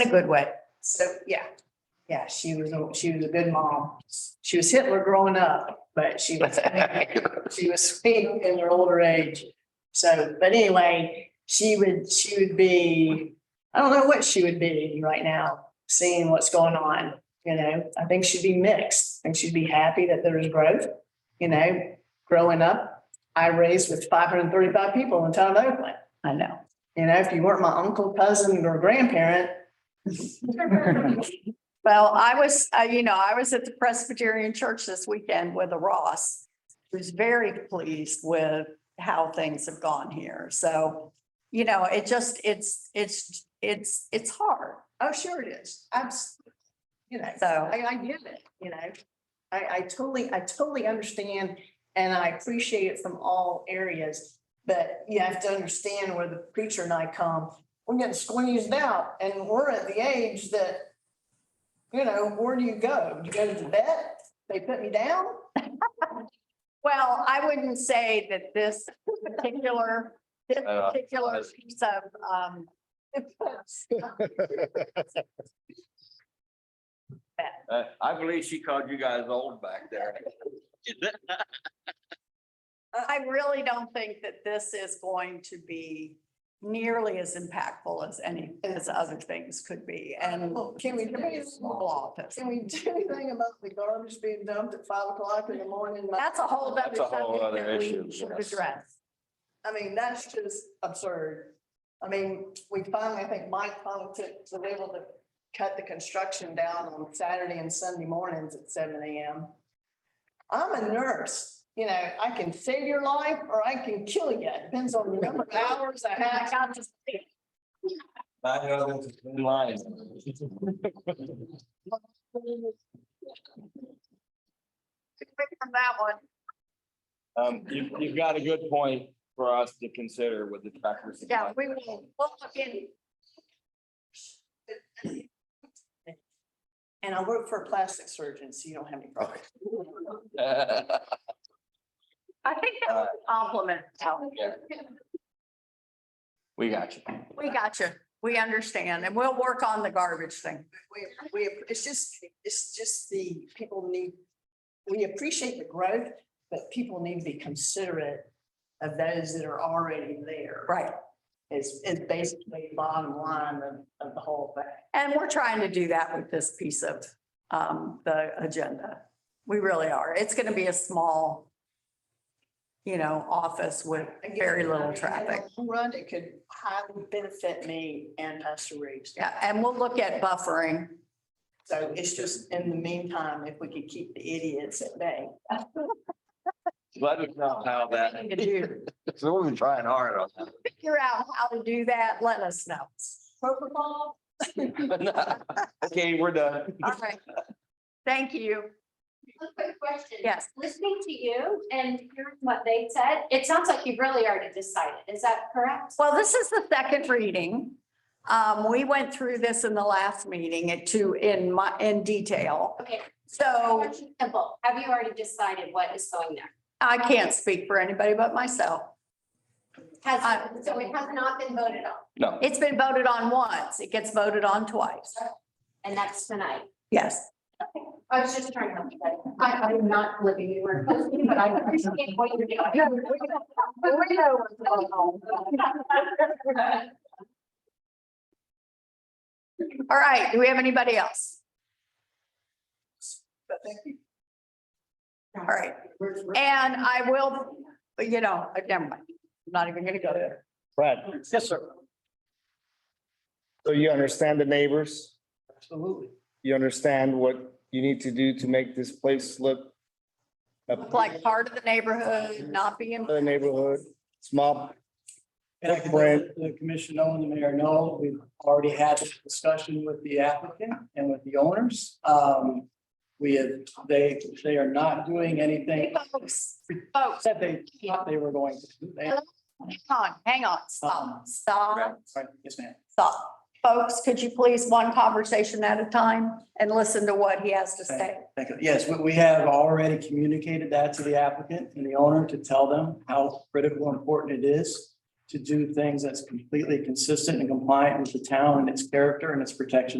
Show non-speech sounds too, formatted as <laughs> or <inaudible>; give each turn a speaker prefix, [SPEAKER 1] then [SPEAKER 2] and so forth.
[SPEAKER 1] in a good way.
[SPEAKER 2] So, yeah, yeah, she was, a she was a good mom. She was Hitler growing up, but she
[SPEAKER 1] <laughs>
[SPEAKER 2] was, she was sweet in her older age. So, but anyway, she would, she would be, I don't know what she would be right now, seeing what's going on, you know? I think she'd be mixed. I think she'd be happy that there is growth, you know? Growing up, I raised with five hundred and thirty-five people in town of Oakland.
[SPEAKER 1] I know.
[SPEAKER 2] You know, if you weren't my uncle, cousin, or grandparent,
[SPEAKER 1] Well, I was, uh, you know, I was at the Presbyterian Church this weekend with a Ross. Who's very pleased with how things have gone here. So, you know, it just, it's, it's, it's, it's hard.
[SPEAKER 2] Oh, sure it is. Absolutely. You know,
[SPEAKER 1] So,
[SPEAKER 2] I, I get it, you know. I, I totally, I totally understand and I appreciate it from all areas. But you have to understand where the preacher and I come, we're getting squeezed out and we're at the age that, you know, where do you go? Do you go to the vet? They put me down?
[SPEAKER 1] well, I wouldn't say that this particular, this
[SPEAKER 3] Uh,
[SPEAKER 1] particular
[SPEAKER 3] as-
[SPEAKER 1] piece of, um, <laughs>
[SPEAKER 3] Uh, I believe she called you guys old back there.
[SPEAKER 1] I really don't think that this is going to be nearly as impactful as any, as other things could be, and.
[SPEAKER 2] Well, can we- can we-
[SPEAKER 1] Small office.
[SPEAKER 2] Can we do anything about the garbage being dumped at five o'clock in the morning?
[SPEAKER 1] That's a whole other
[SPEAKER 3] That's a whole
[SPEAKER 1] subject
[SPEAKER 3] other
[SPEAKER 1] that
[SPEAKER 3] issue,
[SPEAKER 1] we should
[SPEAKER 3] yes.
[SPEAKER 1] address.
[SPEAKER 2] I mean, that's just absurd. I mean, we finally, I think Mike finally took, was able to cut the construction down on Saturday and Sunday mornings at seven AM. I'm a nurse, you know, I can save your life or I can kill you. Depends on the number of hours I
[SPEAKER 1] And I
[SPEAKER 2] have.
[SPEAKER 1] got to see,
[SPEAKER 3] I know this is in line.
[SPEAKER 1] quick from that one,
[SPEAKER 3] Um, you, you've got a good point for us to consider with the tractor.
[SPEAKER 1] yeah,
[SPEAKER 3] supply.
[SPEAKER 1] we will, we'll look in,
[SPEAKER 2] And I work for a plastic surgeon, so you don't have any problems.
[SPEAKER 1] I think that was a compliment, Al.
[SPEAKER 3] Yeah. <laughs> We got you.
[SPEAKER 1] we got you, we understand, and we'll work on the garbage thing.
[SPEAKER 2] We, we, it's just, it's just the people need, we appreciate the growth, but people need to be considerate of those that are already there.
[SPEAKER 1] Right,
[SPEAKER 2] Is, is basically the bottom line of, of the whole thing.
[SPEAKER 1] and we're trying to do that with this piece of, um, the agenda. We really are, it's gonna be a small, you know, office with very little traffic.
[SPEAKER 2] Run, it could highly benefit me and Pastor Reeves.
[SPEAKER 1] Yeah, and we'll look at buffering.
[SPEAKER 2] So it's just, in the meantime, if we could keep the idiots at bay.
[SPEAKER 3] Let us know how that,
[SPEAKER 1] Thing to do.
[SPEAKER 3] so we've been trying hard on that.
[SPEAKER 1] Figure out how to do that, let us know.
[SPEAKER 2] Protocol,
[SPEAKER 3] <laughs> Okay, we're done.
[SPEAKER 1] All right. Thank you.
[SPEAKER 4] A quick question.
[SPEAKER 1] Yes,
[SPEAKER 4] Listening to you and hearing what they said, it sounds like you've really already decided. Is that correct?
[SPEAKER 1] well, this is the second reading. Um, we went through this in the last meeting at two in my, in detail.
[SPEAKER 4] Okay.
[SPEAKER 1] So
[SPEAKER 4] Simple. Have you already decided what is going there?
[SPEAKER 1] I can't speak for anybody but myself. I-
[SPEAKER 4] Has, so it has not been voted on
[SPEAKER 3] No,
[SPEAKER 1] It's been voted on once. It gets voted on twice.
[SPEAKER 4] and that's tonight.
[SPEAKER 1] Yes.
[SPEAKER 4] I was just trying to help you. guys. I, I'm not living in your country, but I appreciate what you're <laughs> doing.
[SPEAKER 1] We know what's going on.
[SPEAKER 4] <laughs>
[SPEAKER 1] All right, do we have anybody else?
[SPEAKER 2] but thank you.
[SPEAKER 1] All right, and I will, you know, never mind. I'm not even gonna go there.
[SPEAKER 5] Brad,
[SPEAKER 2] Yes, sir.
[SPEAKER 5] so you understand the neighbors?
[SPEAKER 2] Absolutely.
[SPEAKER 5] You understand what you need to do to make this place look a
[SPEAKER 1] Look Like part of the neighborhood, not being.
[SPEAKER 5] better neighborhood, small,
[SPEAKER 6] And I can
[SPEAKER 5] Brand.
[SPEAKER 6] let the commission know and the mayor know, we've already had this discussion with the applicant and with the owners. Um, we have, they, they are not doing anything
[SPEAKER 1] Hey, Folks, folks,
[SPEAKER 6] that they thought they were going to. do. They-
[SPEAKER 1] hang on, hang on, stop, stop,
[SPEAKER 6] Sorry, Yes, ma'am.
[SPEAKER 1] stop. Folks, could you please one conversation at a time and listen to what he has to say?
[SPEAKER 6] Thank you. Yes, we, we have already communicated that to the applicant and the owner to tell them how critical and important it is. to do things that's completely consistent and compliant with the town and its character and its protection